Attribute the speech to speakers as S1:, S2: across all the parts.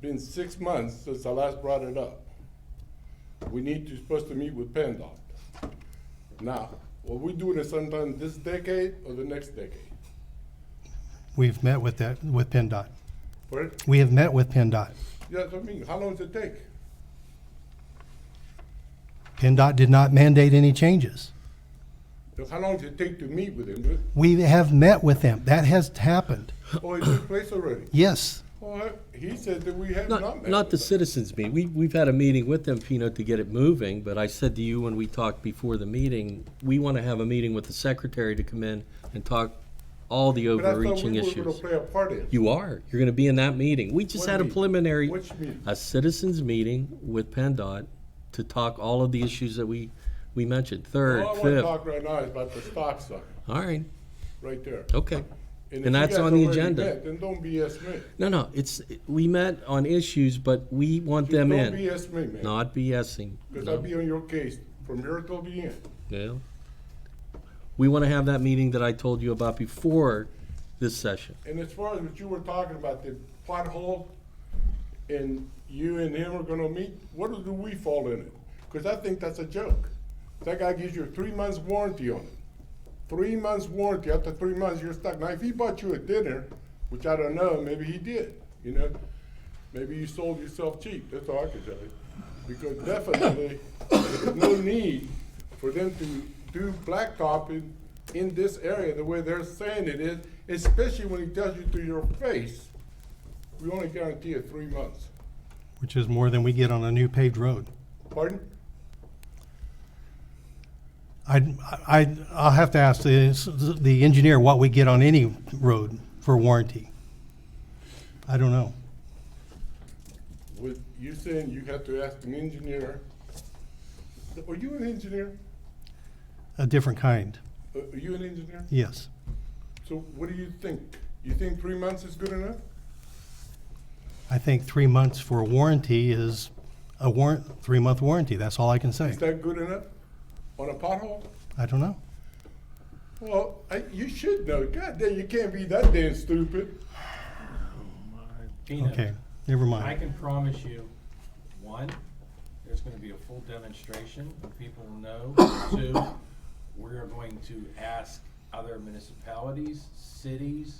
S1: been six months since I last brought it up. We need to, supposed to meet with PennDOT. Now, what we doing is sometime this decade or the next decade.
S2: We've met with that, with PennDOT.
S1: But,
S2: We have met with PennDOT.
S1: yes, I mean, how long does it take?
S2: PennDOT did not mandate any changes.
S1: Look, How long does it take to meet with them?
S2: We have met with them. That has happened.
S1: Oh, it took place already.
S2: Yes.
S1: All right, he said that we have not
S3: Not,
S1: met.
S3: not the
S1: with them.
S3: citizens meeting. We, we've had a meeting with them, Pino, to get it moving, but I said to you when we talked before the meeting, we want to have a meeting with the secretary to come in and talk all the
S1: But I thought we
S3: overreaching
S1: were gonna
S3: issues.
S1: Play a part in. it.
S3: You are. You're going to be in that meeting. We just
S1: What
S3: had a
S1: meeting?
S3: preliminary,
S1: Which meeting?
S3: a citizens meeting with PennDOT to talk all of the issues that we, we mentioned, third,
S1: All Oh, I wanna
S3: fifth.
S1: talk right now is about the stop sign,
S3: All right,
S1: right there.
S3: okay.
S1: if
S3: And
S1: you
S3: that's
S1: guys
S3: on the
S1: already
S3: agenda.
S1: met, Then don't BS me.
S3: No, no, it's, we met on issues, but we want them
S1: Don't
S3: in,
S1: BS me, man,
S3: not BSing.
S1: because
S3: no.
S1: I'll be on your case from here till the end.
S3: Yeah. We want to have that meeting that I told you about before this session.
S1: And as far as what you were talking about, the pothole, and you and him are gonna meet, what do we fall in it? Because I think that's a joke. That guy gives you a three months warranty on it. Three months warranty, after three months, you're stuck. Now, if he bought you a dinner, which I don't know, maybe he did, you know? Maybe you sold yourself cheap, that's all I can tell you. Because definitely, there's no need for them to do blacktopping in this area the way they're saying it is, especially when he tells you to your face, we only guarantee it three months.
S2: Which is more than we get on a new paved road.
S1: Pardon?
S2: I, I, I'll have to ask the, the engineer what we get on any road for warranty. I don't know.
S1: With you saying you have to ask an engineer, are you an engineer?
S2: A different kind,
S1: Uh, Are you an engineer?
S2: yes.
S1: So what do you think? You think three months is good enough?
S2: I think three months for a warranty is a warrant, three-month warranty, that's all I can say.
S1: Is that good enough on a pothole?
S2: I don't know.
S1: Well, I, you should know. God damn, you can't be that damn stupid.
S4: Tina,
S2: Okay, never
S4: I
S2: mind.
S4: can promise you, one, there's gonna be a full demonstration, and people will know. Two, we are going to ask other municipalities, cities,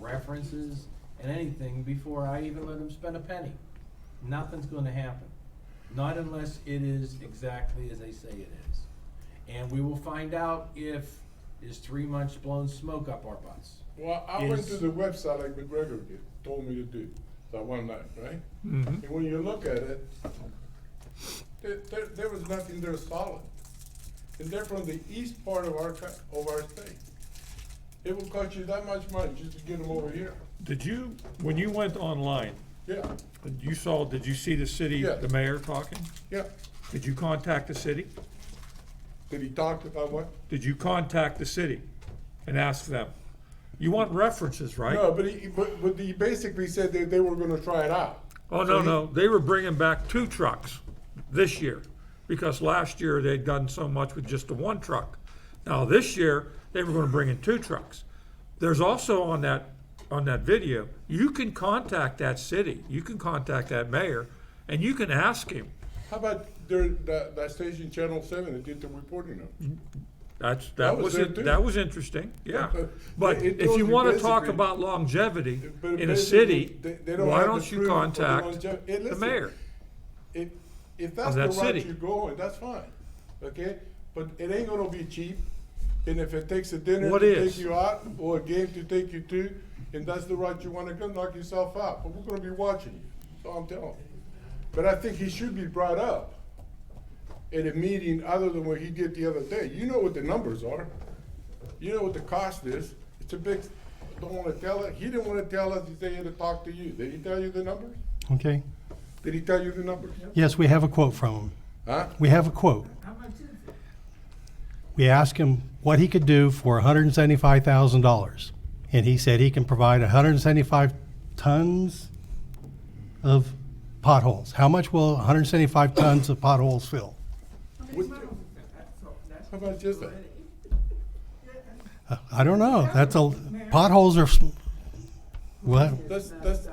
S4: references, and anything before I even let them spend a penny. Nothing's gonna happen. Not unless it is exactly as they say it is. And we will find out if is three months blown smoke up our butts.
S1: Well, I went
S4: Yes.
S1: to the website like McGregor did, told me to do that one night, right? And when you look at it, there, there, there was nothing there solid. And they're from the east part of our, coun- of our state. It will cost you that much money just to get them over here.
S5: Did you, when you went online,
S1: Yeah,
S5: you saw, did you see the city,
S1: Yeah.
S5: the mayor talking?
S1: yeah.
S5: Did you contact the city?
S1: Did he talk about what?
S5: Did you contact the city and ask them? You want references,
S1: No,
S5: right?
S1: but he, but, but he basically said that they were gonna try it out.
S5: Oh, no, no, they were bringing back two trucks this year, because last year they'd done so much with just the one truck. Now, this year, they were gonna bring in two trucks. There's also on that, on that video, you can contact that city, you can contact that mayor, and you can ask him,
S1: How about their, that, that station Channel Seven that did the reporting of? it?
S5: That's,
S1: That
S5: that
S1: was
S5: was,
S1: it,
S5: in-
S1: too.
S5: that was interesting, yeah.
S1: but
S5: But
S1: it
S5: if
S1: goes
S5: you wanna
S1: against the
S5: talk
S1: green-
S5: about longevity
S1: But
S5: in a
S1: basically,
S5: city,
S1: they- they don't
S5: why
S1: have the
S5: don't you
S1: proof of the
S5: contact
S1: longev- Hey,
S5: the
S1: listen,
S5: mayor?
S1: If, if that's the
S5: that
S1: route
S5: city.
S1: you're going, that's fine, okay? But it ain't gonna be cheap, and if it takes a dinner
S5: What
S1: to take
S5: is?
S1: you out, or a game to take you to, and that's the route you wanna go, knock yourself out, but we're gonna be watching you, so I'm telling you. But I think he should be brought up at a meeting other than what he did the other day. You know what the numbers are. You know what the cost is. It's a big, don't wanna tell it, he didn't wanna tell us, he said he had to talk to you. Did he tell you the numbers?
S2: Okay,
S1: Did he tell you the numbers?
S2: yes, we have a quote from him.
S1: Huh?
S2: We have a quote. We asked him what he could do for hundred and seventy-five thousand dollars, and he said he can provide hundred and seventy-five tons of potholes. How much will hundred and seventy-five tons of potholes fill?
S1: How about just that?
S2: Uh, I don't know, that's a, potholes are, s- well,
S1: That's, that's,